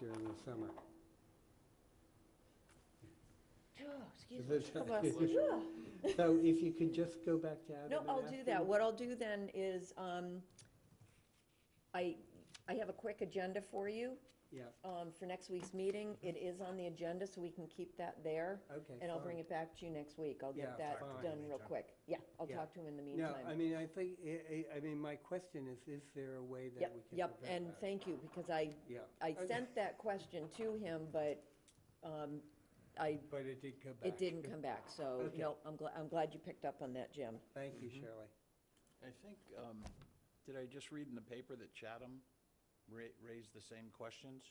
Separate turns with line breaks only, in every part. during the summer.
Excuse
Is
me.
it-
help us.
So if you could just go back to Adam
No,
and
I'll do
ask
that.
him.
What I'll do then is, um, I, I have a quick agenda for you,
Yeah,
um, for next week's meeting. It is on the agenda, so we can keep that there.
okay,
And I'll bring
fine.
it back to you next week. I'll
Yeah,
get that
fine.
done real quick. Yeah, I'll
Yeah.
talk to him in the
No, I
meantime.
mean, I think, I, I- I mean, my question is, is there a way that
Yep,
we can
yep,
prevent
and
that?
thank you, because I,
Yeah,
I
Okay.
sent that question to him, but, um, I,
but it did go back.
it didn't come back, so,
Okay.
no, I'm glad, I'm glad you picked up on that, Jim.
Thank you, Shirley.
I think, um, did I just read in the paper that Chatham ra- raised the same questions?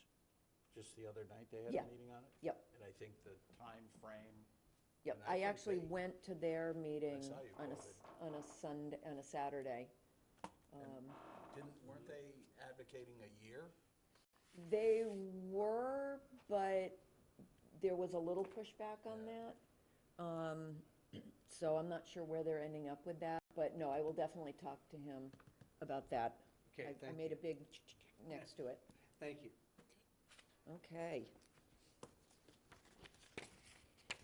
Just the other night, they had
Yeah.
a meeting on it?
Yep.
And I think the time frame.
Yep,
And I
I
think
actually
they-
went to their meeting
saw you
on a,
go,
s- on a Sunday, on a Saturday. Um,
didn't, weren't they advocating a year?
They were, but there was a little pushback on that. Um, So I'm not sure where they're ending up with that, but no, I will definitely talk to him about that.
Okay,
I- I
thank
made
you.
a big next to it.
Thank you.
Okay.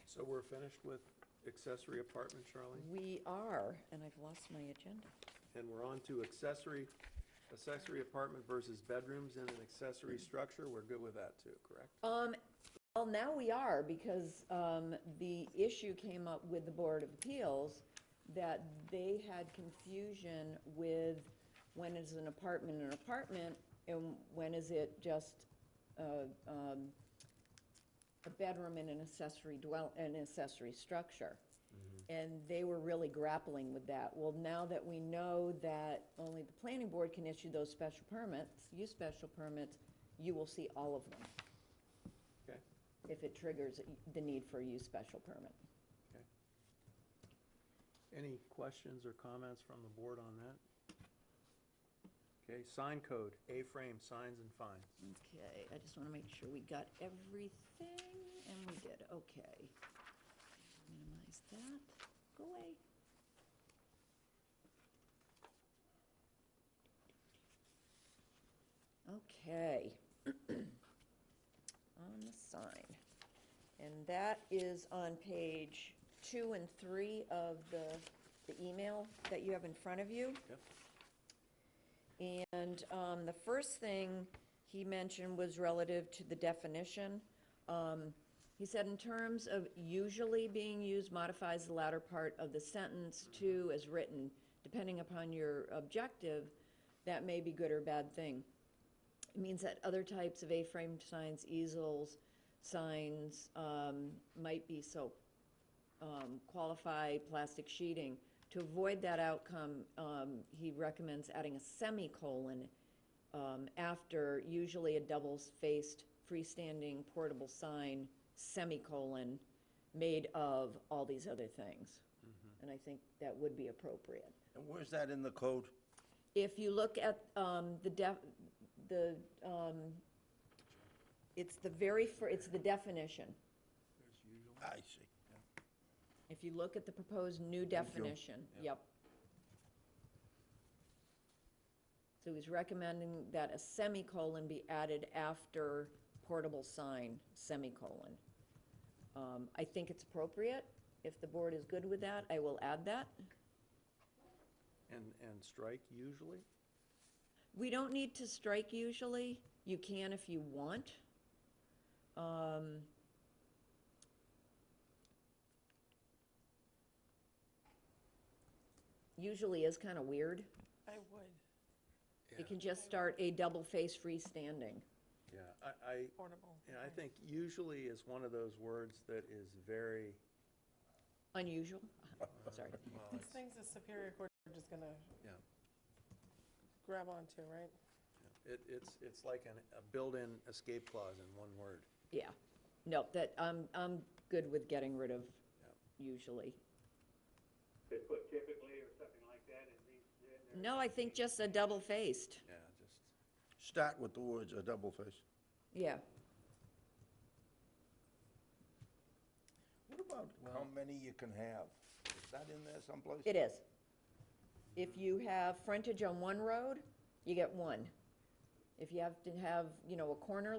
So we're finished with accessory apartment, Charlie?
We are, and I've lost my agenda.
And we're on to accessory, accessory apartment versus bedrooms in an accessory structure. We're good with that too, correct?
Um, well, now we are, because, um, the issue came up with the Board of Appeals that they had confusion with when is an apartment an apartment and when is it just, uh, um, a bedroom in an accessory dwell, an accessory structure. And they were really grappling with that. Well, now that we know that only the planning board can issue those special permits, use special permits, you will see all of them
Okay,
if it triggers the need for a use special permit.
okay. Any questions or comments from the board on that? Okay, sign code, A-frame signs and fines.
Okay, I just want to make sure we got everything, and we did, okay. Minimize that, go away. Okay. On the sign. And that is on page two and three of the, the email that you have in front of you. And um, the first thing he mentioned was relative to the definition. Um, He said, in terms of usually being used modifies the latter part of the sentence to as written, depending upon your objective, that may be good or bad thing. It means that other types of A-frame signs, easels, signs um, might be so um, qualify plastic sheeting. To avoid that outcome, um, he recommends adding a semicolon um, after usually a double-faced freestanding portable sign, semicolon, made of all these other things. And I think that would be appropriate.
And where's that in the code?
If you look at um, the def, the, um, it's the very, fir- it's the definition.
I see.
If you look at the proposed new definition, yep. So he's recommending that a semicolon be added after portable sign, semicolon. Um, I think it's appropriate. If the board is good with that, I will add that.
And, and strike usually?
We don't need to strike usually. You can if you want. Um, Usually is kind of weird.
I would.
It can just start a double-faced freestanding.
Yeah, I, I,
Portable.
and I think usually is one of those words that is very,
Unusual, sorry.
These things the Superior Court are just gonna
yeah.
grab onto, right?
It, it's, it's like an, a built-in escape clause in one word.
Yeah, no, that, I'm, I'm good with getting rid of usually.
They put typically or something like that in these, in there.
No, I think just a double-faced,
Yeah, just.
Start with the words a double face.
yeah.
What about how many you can have? Is that in there someplace?
It is. If you have frontage on one road, you get one. If you have to have, you know, a corner